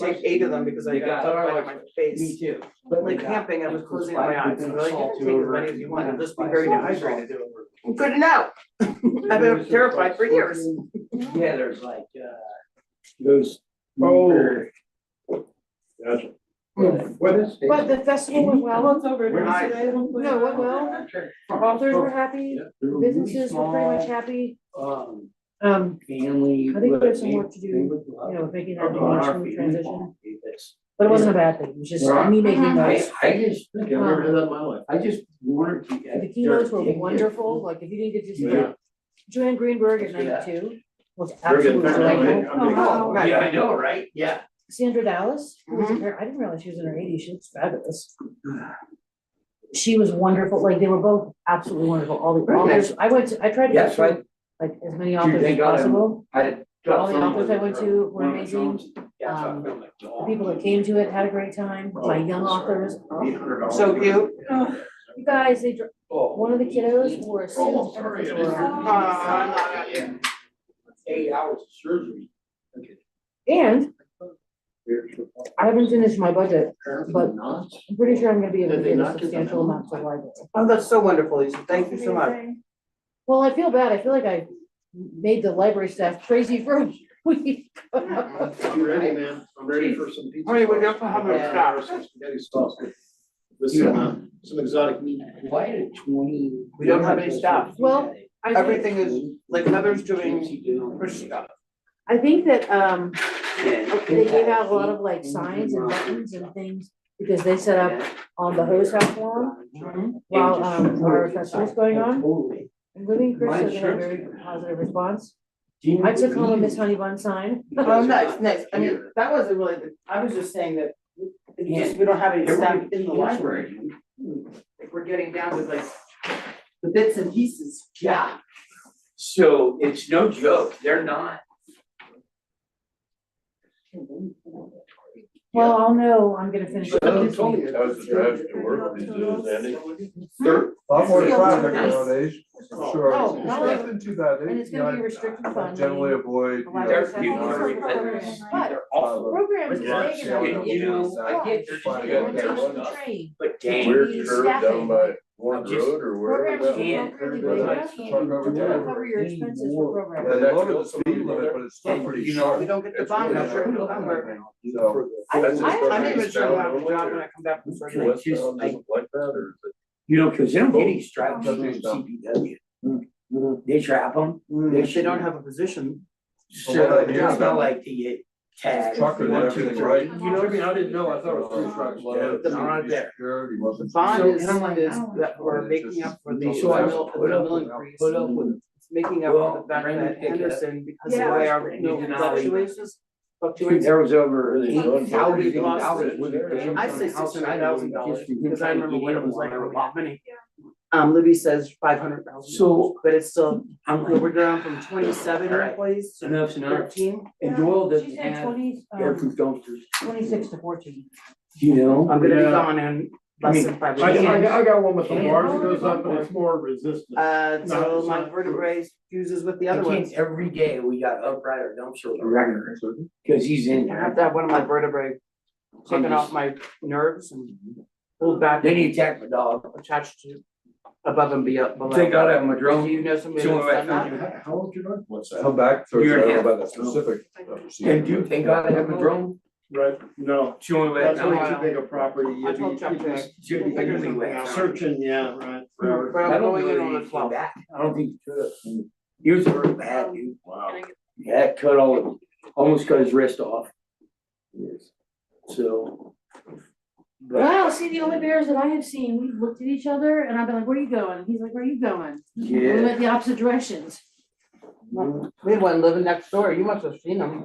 like eight of them because I You got got it. up right in my Me face. too. But like camping, I was closing my eyes, and like, you can take as many as you want, and just be very dehydrated. Good to know. I've been terrified for years. Yeah, there's like, uh. Those. Oh. Gotcha. What is? But the festival went well, it's over. We're not- no, it went well, authors Oh. were happy, businesses were pretty much happy, Um, um, family. I think there's some would- work to do, they would love you know, making it. that Our emotional family transition. won't do this. But it wasn't a bad thing, it was just me making I, notes. I just, I've never had that in my life. I just warned you guys. The keynotes were they're addicted. wonderful, like if you didn't get to see Yeah. that, Joanne Greenberg at Yeah. ninety-two was We're getting absolutely there. delightful. I'm big- Oh, wow. Yeah, I know, right? Yeah. Sandra Dallas, who was in her, I didn't realize she was in her eighties, she looks fabulous. She was wonderful, like they were both absolutely wonderful, all the Very authors, I went to, I tried to go Yes, right. to like as many Dude, authors they as got 'em. possible. I. All the authors I went to were amazing, Yeah, so I Um, feel like, the oh. people that came to it had a great time, Oh, my young authors. So cute. You guys, they, dr- Oh. one of the kiddos wore a Oh, suit. I'm sorry. Uh, Eight hours of surgery. And I haven't finished my budget, But- not. I'm pretty sure I'm gonna be able to Did they get a not get the substantial memo? amount to the library. Oh, that's so wonderful, Lisa. Thank you so much. Well, I feel bad, I feel like I made the library staff crazy for a week. I'm ready, man. I'm ready for some pizza. Honey, we sauce. have to have a Yeah. shot. Some Spaghetti sauce. With some, uh, some exotic meat. Why did twenty? We don't have any staff. Well, I think- Everything is like Heather's doing her doing. stuff. I think that, um, they gave gave out a lot of like signs and buttons and things, because they set up on the hose house forum, Mm-hmm. while, um, our festival's going on. Totally. and Living My Crystal got a shirt's very gonna- positive response. I took home a Miss Honey Bun sign, Oh, nice, nice. I mean, that wasn't really, the- I was just saying that it's just, we don't have any staff in the library. If we're getting down to like the bits and pieces. Yeah. So it's no joke, they're not. well, I'll know, I'm gonna finish. But you told me it. That was the drive to work these days, Andy. A Lot more Feels traffic nice. nowadays, Oh, sure. no, It's not less like- than 2000, and it's you gonna know, be restricted I- I funding. Generally avoid, you know, They're There's people also are relentless. But- They're awful. Programs is Yeah, big yeah, enough. You know, I get there's Fine, people We're in yeah, there, taking the yeah. train. but damn, weird curve down Staffing. by Warren Just- Road or wherever Programs that Yeah. was. don't really Yeah. big enough, Yeah. you Truck over don't there. cover your expenses for programs. They Yeah. loaded the speed limit, but it's still Yeah. pretty You know, We sharp. don't get the It's bond, I'm really sure we not. So, I- That's I- as far I'm as not even it's sure down about the job when I there. uh, come back from Can surgery. I West just, Town I- doesn't like that or is it? Oh, you know, cause they don't get any stripes Nothing on done. CPW. Mm-hmm. They trap them, If they don't have a position, Well, so what I it's hear not about- like they get tagged. Trucker did one, two, everything three. right. You know what I mean? I didn't know. I thought it Three trucks Doesn't loaded, needed to run be there. secured, he wasn't- bond So- is, is And I'm like, that we're making up for the So I mill, the put up mill with- increase. Put up with It's making up for Well, the fact Brandon that picked it up. Henderson, because of the Yeah. way our mill Denali. fluctuations, Dude, fluctuates. there was over Eight eight thousand thousand dollars worth of dollars. damage I'd on say the house, six and hundred I know thousand dollars, just because I trying to remember get when in it was line like, or oh, what. wow, many. Um, Libby says five hundred thousand, So but it's still, I'm like, we're down from twenty-seven All right. employees to enough's enough. thirteen. And Doyle She doesn't said have 20, um, air proof dumpsters, twenty-six to fourteen. you know? I'm gonna be Yeah. gone in I less mean, than five I, minutes. I got- I got one with the Yeah. bars that goes up and it's more resistant. Uh, No, so it's my not true. vertebrae fuses with the I other can't, ones. every day we got upright or dumpster wrecker, cause he's in I have there. to have one of my vertebrae taken I'm off just- my nerves and pulled back Then he attacked my dog. attached to above and be- below. Thank God I have my Do drone. you know somebody So that's done I that? How how old you are? What's Come back, so Year it's and a not half. about the specific. And dude, thank God I have a drone. Right, no, She only that's let how way me. I- too big a property. I You'd be- told Chuck you'd be that. Shoot, We'll figure he something went out. out. Searching, yeah, right. Mm, But I I'm don't going in know on if the he came twelfth. back. I don't think he could. He was hurt bad, dude. Wow. Yeah, it cut all, almost cut his wrist off. So. but- Wow, see, the only bears that I have seen, we've looked at each other and I've been like, where are you going? And He's like, where are you going? And We Yeah. went the opposite directions. We had one living next door. You must have seen them.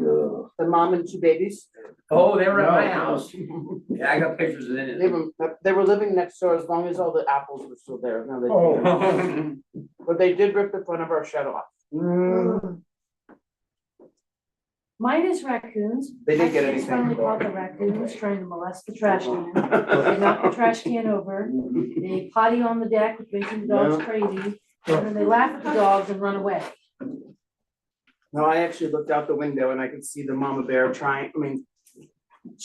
The mom and two babies. Oh, they were at my No. house. Yeah, I got pictures of They were, they were living next door as long as all the apples were still there. Now they, Oh. it. but they did rip the front of our shed off. Minus raccoons. They didn't get My kids anything. Finally caught the raccoons trying to molest the trash can. They knocked the trash can over. They potty on the deck, which makes the dogs crazy. And then they laugh at the dogs and run away. No, I actually looked out the window and I could see the mama bear trying, I mean,